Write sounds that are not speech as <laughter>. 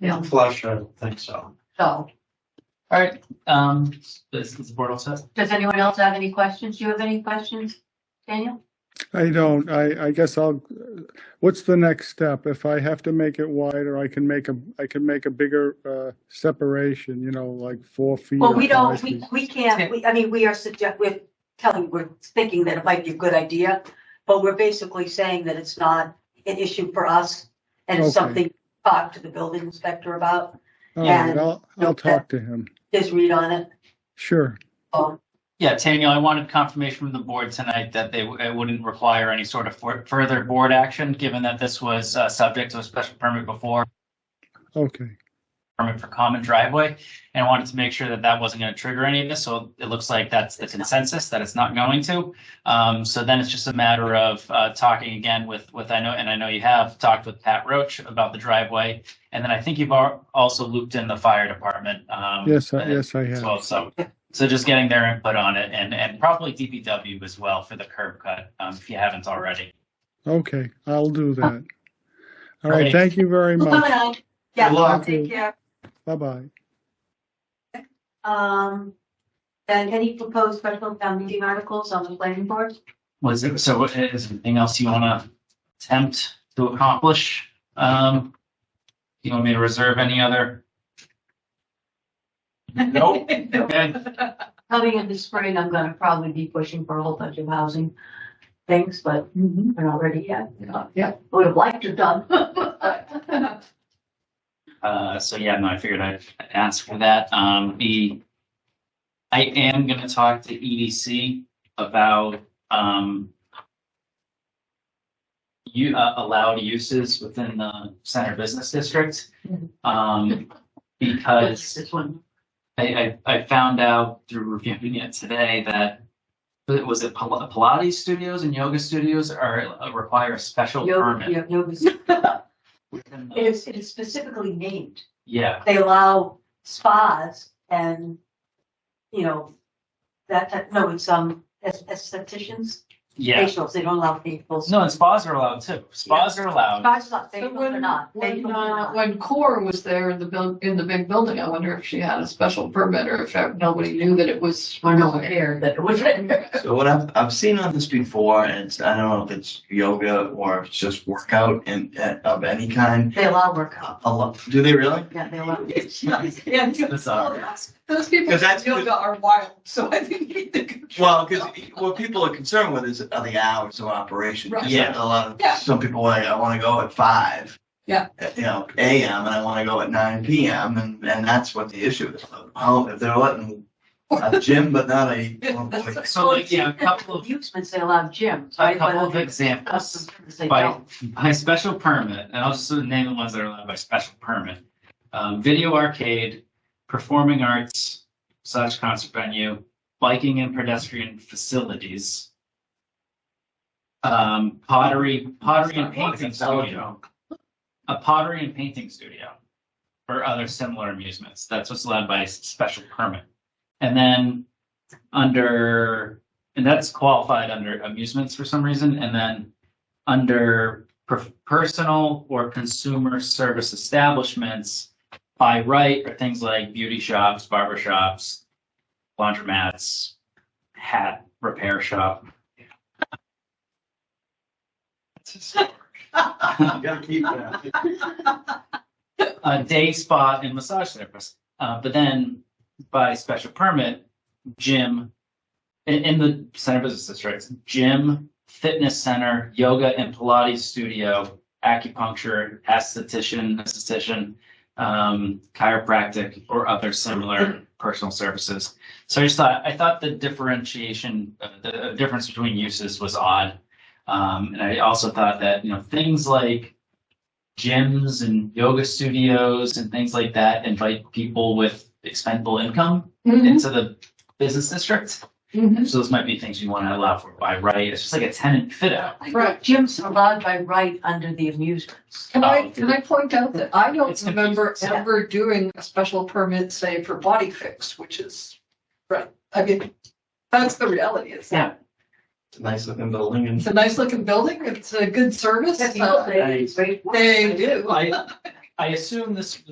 Yeah. flush, I don't think so. So, All right, um, is is the board all set? does anyone else have any questions? Do you have any questions, Daniel? I don't, I, I guess I'll, what's the next step? If I have to make it wider, I can make a, I can make a bigger, uh, separation, you know, like four feet. Well, or we don't, five we, feet. we can't, we, I mean, we are suggest, we're telling, we're thinking that it might be a good idea, but we're basically saying that it's not an issue for us and it's Okay. something to talk to the building inspector about, All right, yeah. I'll, I'll Okay. talk to him. his read on it. Sure. Um, Yeah, Daniel, I wanted confirmation from the board tonight that they, it wouldn't require any sort of for- further board action, given that this was, uh, subject to a special permit before, Okay. permit for common driveway, and I wanted to make sure that that wasn't gonna trigger any of this, so it looks like that's the consensus, that it's not going to. Um, so then it's just a matter of, uh, talking again with, with, I know, and I know you have talked with Pat Roach about the driveway, and then I think you've al- also looped in the fire department, um. Yes, I- uh, yes, I as have. well, so, so just getting their input on it and, and probably DPW as well for the curb cut, um, if you haven't already. Okay, I'll do that. All Right. right, thank you very much. Yeah, Good luck. take care. Bye-bye. Um, and any proposed special town meeting articles on the planning board? Was it, so what- is there anything else you wanna attempt to accomplish? Um, you want me to reserve any other? Nope, <laughs> okay, Coming in the spring, I'm gonna probably be pushing for a whole bunch of housing things, but we're not ready yet. Yeah. Would have liked to <laughs> done. uh, so yeah, no, I figured I'd ask for that, um, the. I am gonna talk to EDC about, um. You, uh, allowed uses within the center business district. Mhm. Um, because. This one, I, I, I found out through reviewing it today that but was it Pil- Pilates studios and yoga studios are require a special yoga, permit. yeah, yoga's, it within the- It's, it's specifically named. Yeah, They allow spas and, you know, that, that, no, it's, um, aes- estheticians, yeah. facials, they don't allow facials. No, and spas are allowed too. Spas are allowed. Spas not, So facials are when, not. when, Facials are uh, not. when Core was there in the build, in the big building, I wonder if she had a special permit or if nobody knew that it was. or no, <laughs> air that it was written. So what I've, I've seen on this before, and it's, I don't know if it's yoga or it's just workout and of any kind. They allow workout. A lot, do they really? Yeah, they allow. Yeah, uh, Bizarre. Those people Because in that's- yoga are wild, so I think they could. Well, because what people are concerned with is are the hours of operation. 'Cause Right. A lot of, Yeah. some people are like, I want to go at five. Yeah. uh, You know, AM and I want to go at nine PM and, and that's what the issue is. How, if they're letting a gym but not a. oh So like, yeah, a couple <laughs> of, Amusements, they allow gyms, a right? couple But of examples. customers, They by, don't. by special permit, and I'll just name the ones that are allowed by special permit. Um, video arcade, performing arts slash concert venue, biking and pedestrian facilities. Um, pottery, pottery and painting studio. A pottery and painting studio. Or other similar amusements. That's what's allowed by s- special permit. And then under, and that's qualified under amusements for some reason, and then under per- personal or consumer service establishments by right are things like beauty shops, barber shops, laundromats, hat repair shop. You gotta keep that. a day spa and massage therapist. Uh, but then by special permit, gym in, in the center business districts, gym, fitness center, yoga and Pilates studio, acupuncture, esthetician, esthetician, um, chiropractic, or other similar personal services. So I just thought I thought the differentiation, uh, the difference between uses was odd, um, and I also thought that you know things like gyms and yoga studios and things like that invite people with expendable income Mm-hmm. into the business district. Mhm. So those might be things you want to allow for by right. It's just like a tenant fit out. Right. Gyms are allowed by right under the amusements. Can I, can I point out that I don't It's confusing. remember Yeah. ever doing a special permit, say, for body fix, which is, right, I mean, that's the reality, it's, Yeah. It's a nice looking building it's and. a nice looking building, it's a good service. That's uh, all they- <laughs> They do. I I assume this